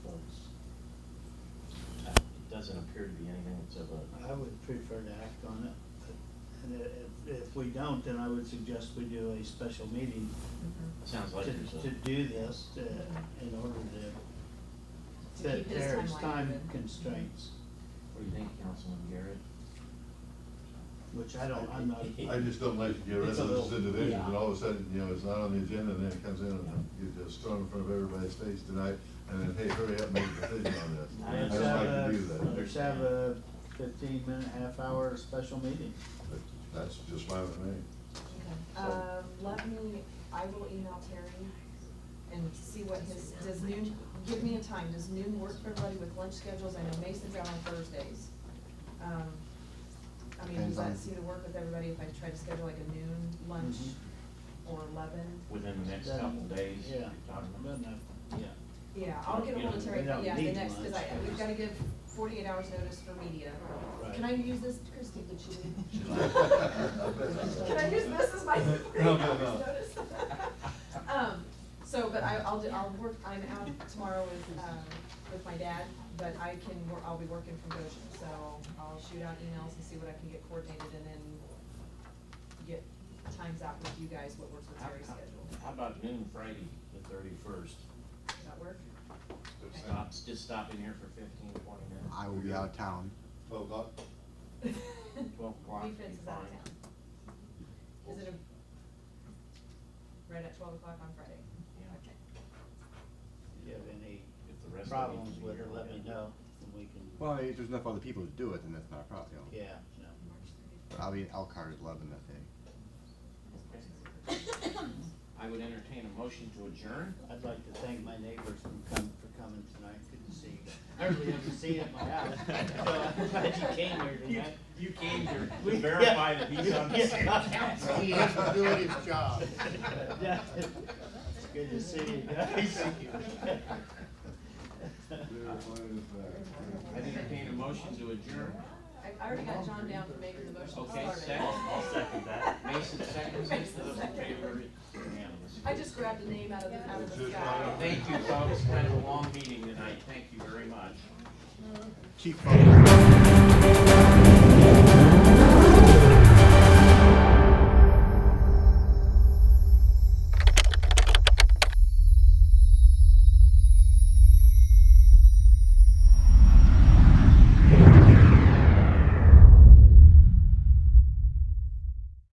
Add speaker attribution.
Speaker 1: doesn't appear to be anything that's of a,
Speaker 2: I would prefer to act on it, but, and i- if, if we don't, then I would suggest we do a special meeting
Speaker 3: Mm-hmm.
Speaker 1: it sounds
Speaker 2: to,
Speaker 1: like there's
Speaker 2: to
Speaker 1: a,
Speaker 2: do this, to, in order to
Speaker 3: To
Speaker 2: fit
Speaker 3: keep this
Speaker 2: Terry's
Speaker 3: timeline
Speaker 2: time
Speaker 3: open.
Speaker 2: constraints,
Speaker 1: what do you think, Councilman Garrett?
Speaker 2: which I don't, I'm not.
Speaker 1: I
Speaker 4: I just don't like to get rid
Speaker 2: It's a
Speaker 4: of those
Speaker 2: little-
Speaker 4: individuals, and
Speaker 1: yeah.
Speaker 4: all of a sudden, you know, it's not on the agenda, and then it comes in and you just throw it in front of everybody's face tonight, and then, hey, hurry up, make a decision on this.
Speaker 1: I
Speaker 4: I
Speaker 2: Let's
Speaker 4: don't
Speaker 2: have
Speaker 4: like to
Speaker 2: a,
Speaker 4: do that,
Speaker 2: let's have a fifteen minute, half hour special meeting.
Speaker 4: but that's just fine with me.
Speaker 3: Okay. Um, let me, I will email Terry and see what his, does noon, give me a time, does noon work for everybody with lunch schedules? I know Mason's out on Thursdays. Um, I mean, does
Speaker 5: Depends on-
Speaker 3: that seem to work with everybody if I try to schedule like a noon lunch
Speaker 2: Mhm.
Speaker 3: or eleven?
Speaker 1: Within the next
Speaker 2: Then-
Speaker 1: couple days, you're
Speaker 2: Yeah,
Speaker 1: talking about?
Speaker 2: doesn't have, yeah.
Speaker 3: Yeah, I'll get ahold of Terry,
Speaker 2: We don't
Speaker 3: yeah, the
Speaker 2: need
Speaker 3: next, cause I,
Speaker 2: lunch.
Speaker 3: we've gotta give forty-eight hours notice for media.
Speaker 2: Right.
Speaker 3: Can I use this, Christie, did you? Can I
Speaker 4: I
Speaker 3: use this as my forty
Speaker 4: No,
Speaker 3: hours
Speaker 4: no, no.
Speaker 3: notice? Um, so, but I, I'll do, I'll work, I'm out tomorrow with, um, with my dad, but I can, wor- I'll be working from Goshen, so I'll shoot out emails and see what I can get coordinated and then get times out with you guys, what works with
Speaker 1: How-
Speaker 3: Terry's
Speaker 1: how-
Speaker 3: schedule.
Speaker 1: How about noon Friday, the thirty-first?
Speaker 3: Does that work?
Speaker 1: Stop, just stop in here for fifteen, twenty minutes,
Speaker 5: I will be out of town.
Speaker 4: Twelve o'clock?
Speaker 1: twelve o'clock would be
Speaker 3: Defense is out of
Speaker 1: fine.
Speaker 3: town. Is it a, right at twelve o'clock on Friday?
Speaker 1: Yeah.
Speaker 3: Okay.
Speaker 2: If you have any
Speaker 1: If the rest of you can
Speaker 2: problems
Speaker 1: be
Speaker 2: with
Speaker 1: here,
Speaker 2: it, let me know, and we can,
Speaker 5: Well, if there's enough other people to do it, then that's not a problem.
Speaker 2: yeah, no.
Speaker 3: March
Speaker 5: But I'll be in Elkhart at eleven that day.
Speaker 1: I would entertain a motion to adjourn.
Speaker 2: I'd like to thank my neighbors for coming, for coming tonight, good to see you. I really haven't seen you at my house, so I'm glad you came here tonight.
Speaker 1: You came here
Speaker 2: We-
Speaker 1: to verify that he's on the city
Speaker 2: Yeah.
Speaker 1: council.
Speaker 4: He is doing
Speaker 5: his job.
Speaker 2: Yeah, It's good to see you guys.
Speaker 1: I entertain a motion to adjourn.
Speaker 3: I I already got John down for making the motion to
Speaker 1: Okay,
Speaker 3: start it.
Speaker 1: second. I'll second
Speaker 3: that.
Speaker 1: Mason seconds, it. those in favor,
Speaker 3: Second.
Speaker 1: unanimous.
Speaker 3: I just grabbed a name out of the, out of the
Speaker 4: Just
Speaker 3: sky.
Speaker 4: right
Speaker 1: Thank you, folks, kind of a long meeting tonight, thank you very much.
Speaker 5: Chief.